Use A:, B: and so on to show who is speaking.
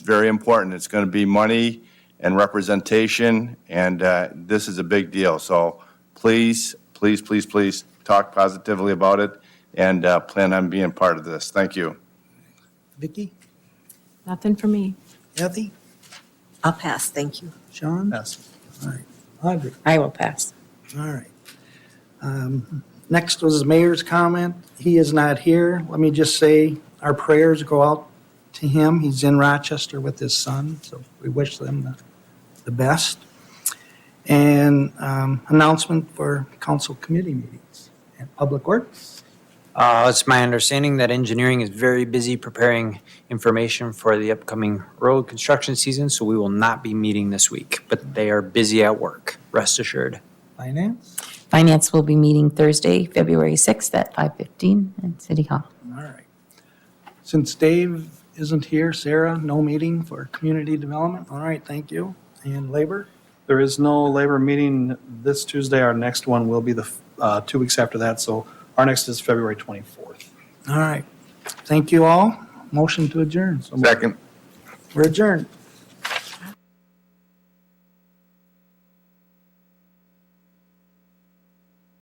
A: very important. It's going to be money and representation, and uh, this is a big deal. So please, please, please, please talk positively about it and uh, plan on being part of this. Thank you.
B: Vicky,
C: Nothing for me.
B: Kathy,
D: I'll pass, thank you.
B: Sean?
E: Pass.
B: All right, Audrey,
D: I will pass.
B: all right. Um, Next was the mayor's comment. He is not here. Let me just say, our prayers go out to him. He's in Rochester with his son, so we wish them the- the best. And um, announcement for council committee meetings and public works.
F: Uh, It's my understanding that engineering is very busy preparing information for the upcoming road construction season, so we will not be meeting this week, but they are busy at work, rest assured.
B: Finance,
G: Finance will be meeting Thursday, February 6th at 5:15 at City Hall.
B: all right. Since Dave isn't here, Sarah, no meeting for community development. All right, thank you. And labor?
E: There is no labor meeting this Tuesday. Our next one will be the, uh, two weeks after that, so our next is February 24th.
B: All right. Thank you all. Motion to adjourn.
A: Second.
B: We're adjourned.